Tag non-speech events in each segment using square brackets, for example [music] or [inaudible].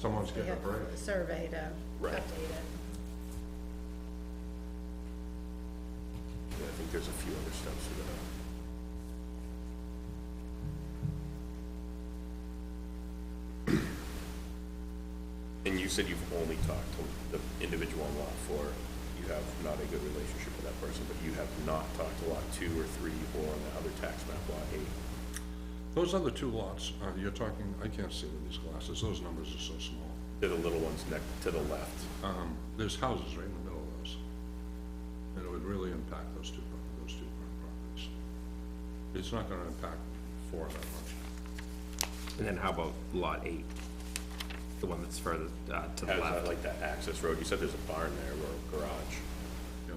Someone's getting a break. survey to Right. update update it. Yeah, I think there's a few other steps we're gonna. And you said you've only talked to the individual on lot four. You have not a good relationship with that person, but you have not talked to lot two or three or on the other tax map, lot eight. Those other two lots, uh, you're talking, I can't see with these glasses, those numbers are so small. They're the little ones next to the left. Um, there's houses right in the middle of those. And it would really impact those two, pro- those two properties. It's not gonna impact four that much. And then how about lot eight? The one that's further uh, to the Has that, left? like that access road? You said there's a barn there or a garage. Yeah.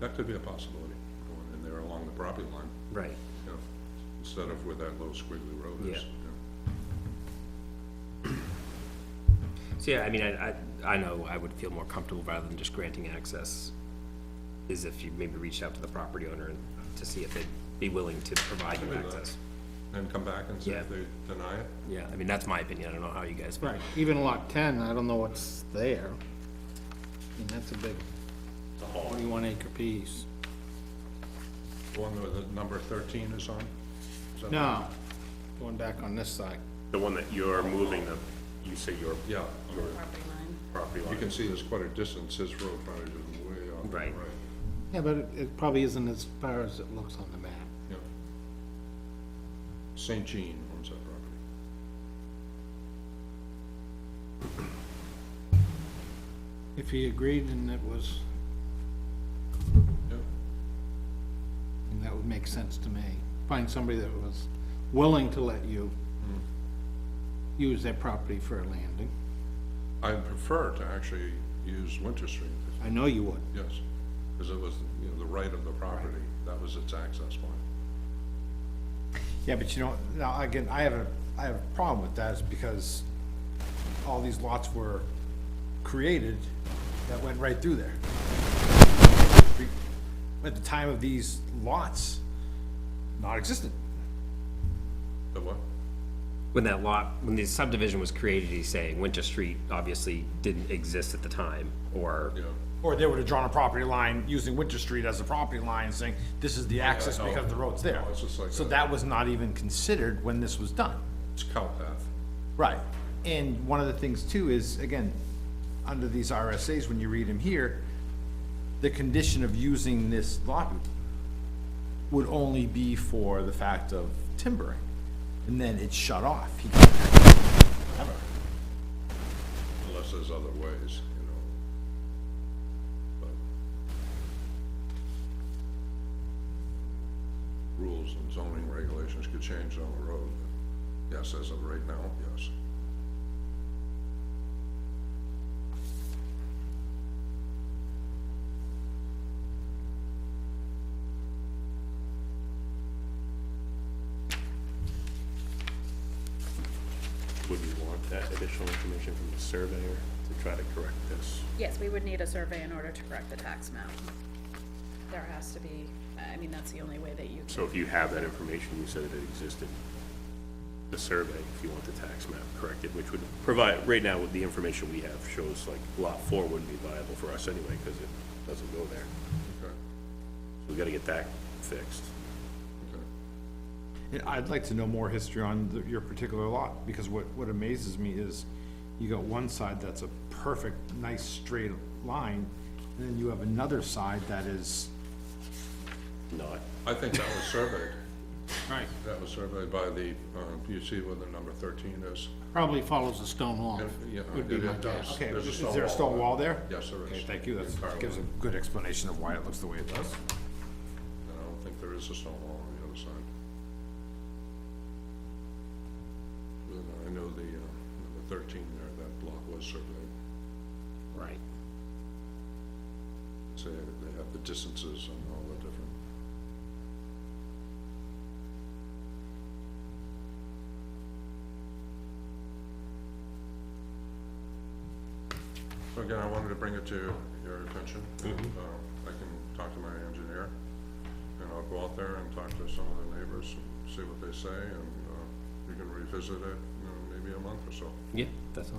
That could be a possibility, going in there along the property line, Right, you know, instead of where that low squiggly road is. Yeah. yeah. so yeah, I mean, I, I, I know I would feel more comfortable rather than just granting access, is if you maybe reached out to the property owner and to see if they'd be willing to provide you Could do that. access. Then come back and see if Yeah. they deny it. Yeah, I mean, that's my opinion, I don't know how you guys feel. Right, even lot ten, I don't know what's there. And that's a big It's a hall. forty-one acre piece. The one where the number thirteen is on? Is that- No, going back on this side. The one that you're moving, the, you say your Yeah, your Property line. property line. you can see there's quite a distance, his road probably is way off. to the Right. Yeah, but it- it probably isn't as far as it looks on the map. Yeah. St. Jean owns that property. If he agreed and it was, Yeah. and that would make sense to me. Find somebody that was willing to let you use their property for a landing. I prefer to actually use Winter Street, if- I know you would. yes, because it was, you know, the right of the property, that was its access point. Yeah, but you know, now, again, I have a, I have a problem with that, is because all these lots were created that went right through there. At the time of these lots, not existent. The what? When that lot, when the subdivision was created, he's saying Winter Street obviously didn't exist at the time, or, Yeah, Or they would have drawn a property line using Winter Street as a property line, saying, this is the access no. because the road's there. No, it's just like So that. that was not even considered when this was done. it's cow path. Right, and one of the things too is, again, under these RSAs, when you read them here, the condition of using this lot would only be for the fact of timbering, and then it's shut off. He can't have it. unless there's other ways, you know. But Rules and zoning regulations could change on the road. Yes, as of right now, yes. Would we want that additional information from the surveyor to try to correct this? Yes, we would need a survey in order to correct the tax map. There has to be, I mean, that's the only way that you can, So if you have that information, you said that it existed, the survey, if you want the tax map corrected, which would provide, right now with the information we have shows like lot four wouldn't be viable for us anyway, because it doesn't go there. Okay, So we gotta get that fixed. okay. And I'd like to know more history on the- your particular lot, because what, what amazes me is you got one side that's a perfect, nice, straight line, and then you have another side that is Not, I think that was surveyed. [laughs] Right. That was surveyed by the, um, you see where the number thirteen is? Probably follows a stone wall. And, you know, Would be it- my it does. guess. Okay, There's is there a stone wall there? Yes, there is. Okay, thank you, Entirely. that gives a good explanation of why it looks the way it does. And I don't think there is a stone wall on the other side. Then I know the, uh, number thirteen there, that block was surveyed. right, So they have the distances and all the different. So again, I wanted to bring it to your attention. and, uh, I can talk to my engineer, and I'll go out there and talk to some of the neighbors and see what they say, and uh, we can revisit it, you know, maybe a month or so. Yeah, that's all.